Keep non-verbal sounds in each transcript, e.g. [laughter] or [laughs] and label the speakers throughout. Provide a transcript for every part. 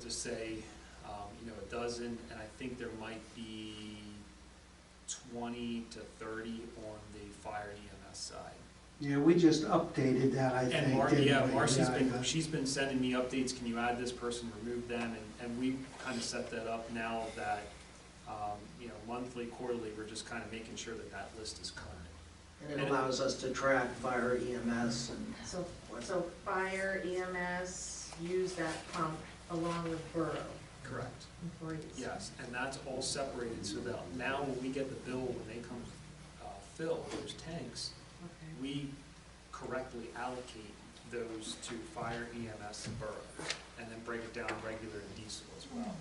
Speaker 1: to Uh, say, um, you know, a dozen, and I think there might be twenty to thirty on the fire EMS side.
Speaker 2: Yeah, we just updated that, I think.
Speaker 1: And Mar,
Speaker 2: didn't
Speaker 1: yeah,
Speaker 2: we?
Speaker 1: Marcy's
Speaker 2: Yeah,
Speaker 1: been,
Speaker 2: yeah.
Speaker 1: she's been sending me updates, can you add this person, remove them, and, and we kind of set that up now that, um, you know, monthly, quarterly, we're just kind of making sure that that list is current.
Speaker 3: And it allows us to track fire EMS and
Speaker 4: So,
Speaker 3: what.
Speaker 4: so fire EMS use that pump along with borough
Speaker 1: Correct.
Speaker 4: employees.
Speaker 1: Yes, and that's all separated, so that now when we get the bill, when they come, uh, fill those tanks,
Speaker 4: Okay.
Speaker 1: we correctly allocate those to fire EMS and borough, and then break it down regular and diesel as well.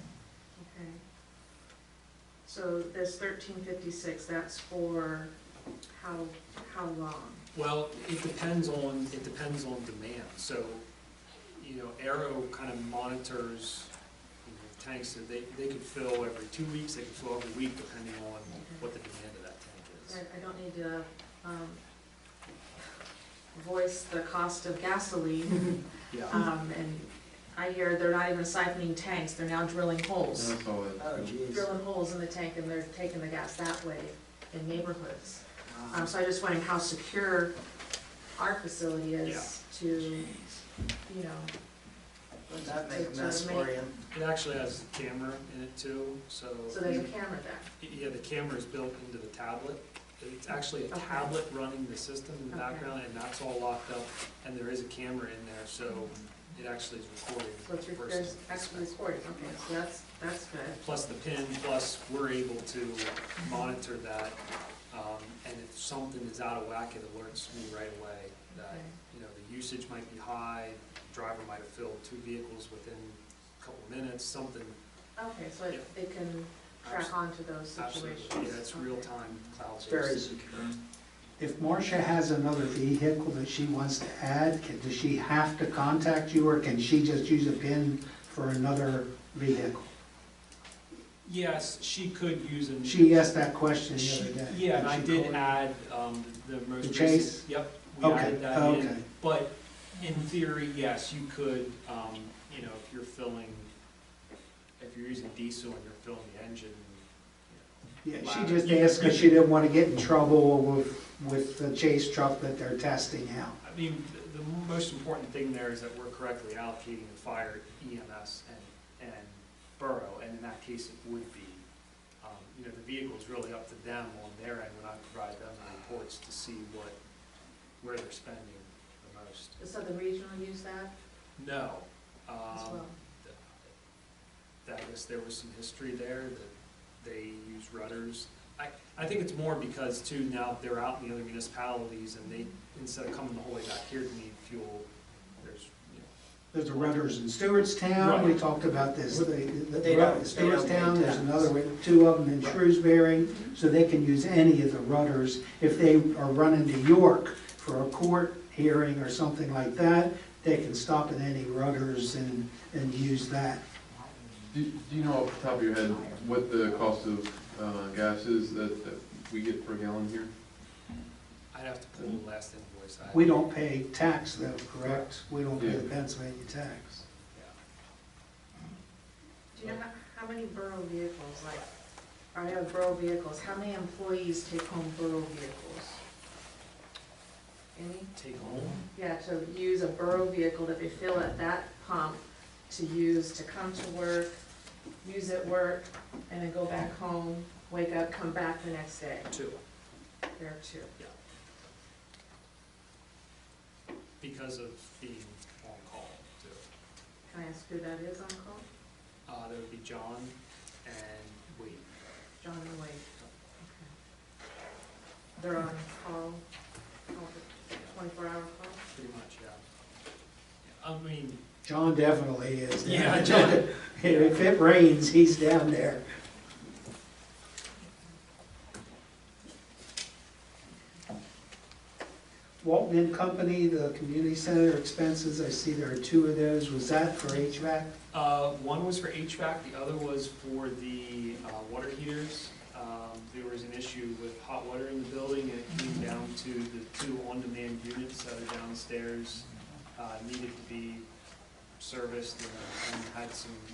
Speaker 4: Okay. So this thirteen fifty-six, that's for how, how long?
Speaker 1: Well, it depends on, it depends on demand, so, you know, Arrow kind of monitors, you know, tanks, so they, they could fill every two weeks, they could fill every week, depending on what the demand of that
Speaker 4: I,
Speaker 1: tank is.
Speaker 4: I don't need to, um, voice the cost of gasoline,
Speaker 1: Yeah,
Speaker 4: um, and I hear they're not even siphoning tanks, they're now drilling holes.
Speaker 5: That's all
Speaker 3: Oh,
Speaker 5: it-
Speaker 3: geez.
Speaker 4: Drilling holes in the tank and they're taking the gas that way in neighborhoods. Um,
Speaker 3: Wow.
Speaker 4: so I just wondering how secure our facility is to, you know,
Speaker 3: Wouldn't that make a mess for you?
Speaker 1: it actually has a camera in it too, so.
Speaker 4: so there's a camera there.
Speaker 1: Yeah, the camera is built into the tablet. It's actually a
Speaker 4: Okay.
Speaker 1: tablet running the system in the
Speaker 4: Okay.
Speaker 1: background, and that's all locked up, and there is a camera in there, so it actually is recording.
Speaker 4: Mm-hmm. So it's,
Speaker 1: the
Speaker 4: re-
Speaker 1: person.
Speaker 4: there's actually recording, okay, so that's, that's good.
Speaker 1: Plus the pin, plus we're able to
Speaker 4: Mm-hmm.
Speaker 1: monitor that, um, and if something is out of whack, it alerts me right away that,
Speaker 4: Okay.
Speaker 1: you know, the usage might be high, driver might have filled two vehicles within a couple minutes, something,
Speaker 4: Okay, so it, it can track onto those situations.
Speaker 1: absolutely, yeah, it's
Speaker 4: Okay.
Speaker 1: real-time
Speaker 3: It's
Speaker 1: cloud-based.
Speaker 3: very secure.
Speaker 2: If Marcia has another vehicle that she wants to add, can- does she have to contact you, or can she just use a PIN for another vehicle?
Speaker 1: Yes, she could use a.
Speaker 2: She asked that question the
Speaker 1: She-
Speaker 2: other day.
Speaker 1: Yeah, and I
Speaker 2: She
Speaker 1: did
Speaker 2: called.
Speaker 1: add um, the most
Speaker 2: The
Speaker 1: recent.
Speaker 2: Chase?
Speaker 1: Yep, we
Speaker 2: Okay,
Speaker 1: added that in.
Speaker 2: okay.
Speaker 1: But in theory, yes, you could, um, you know, if you're filling, if you're using diesel and you're filling the engine,
Speaker 2: Yeah, she just asked because she didn't want to get in trouble with, with the Chase truck that they're testing out.
Speaker 1: I mean, the- the most important thing there is that we're correctly allocating the fire EMS and, and borough, and in that case, it would be, um, you know, the vehicle's really up to them on their end when I provide them the reports to see what, where they're spending the most.
Speaker 4: So the regional use that
Speaker 1: No. um,
Speaker 4: as well?
Speaker 1: th- That was, there was some history there that they use rudders. I, I think it's more because too, now they're out in the other municipalities and they, instead of coming the whole way back here to need fuel, there's, you know.
Speaker 2: There's the rudders in Stewartstown, we talked about this, the, the
Speaker 3: They don't-
Speaker 2: the
Speaker 3: they don't
Speaker 2: Stewartstown, there's
Speaker 3: maintain.
Speaker 2: another, one, two of them in
Speaker 3: Right.
Speaker 2: Shrewsbury, so they can use any of the rudders. If they are running to York for a court hearing or something like that, they can stop at any rudders and, and use that.
Speaker 5: Do, do you know off the top of your head what the cost of, uh, gas is that, that we get per gallon here?
Speaker 1: I'd have to pull the last invoice. I-
Speaker 2: We don't pay tax though, correct? We don't pay the
Speaker 5: Yeah.
Speaker 2: Pennsylvania tax.
Speaker 1: yeah.
Speaker 4: Do you know how, how many borough vehicles, like, are there borough vehicles, how many employees take home borough vehicles? Any?
Speaker 1: Take home,
Speaker 4: Yeah, to use a borough vehicle that they fill at that pump to use to come to work, use at work, and then go back home, wake up, come back the next day.
Speaker 1: two,
Speaker 4: There are two.
Speaker 1: because of being on call, too.
Speaker 4: Can I ask who that is on call?
Speaker 1: Uh, there would be John and Wade.
Speaker 4: John and Wade. Okay. They're on call, call for twenty-four hour call?
Speaker 1: pretty much, yeah. Yeah, I mean,
Speaker 2: John definitely is. there. [laughs]
Speaker 1: Yeah, John.
Speaker 2: If it rains, he's down there. Walton and Company, the community center expenses, I see there are two of those. Was that for HVAC?
Speaker 1: Uh, one was for HVAC, the other was for the, uh, water heaters. Um, there was an issue with hot water in the building, and it came down to the two on-demand units that are downstairs, uh, needed to be serviced and- and had some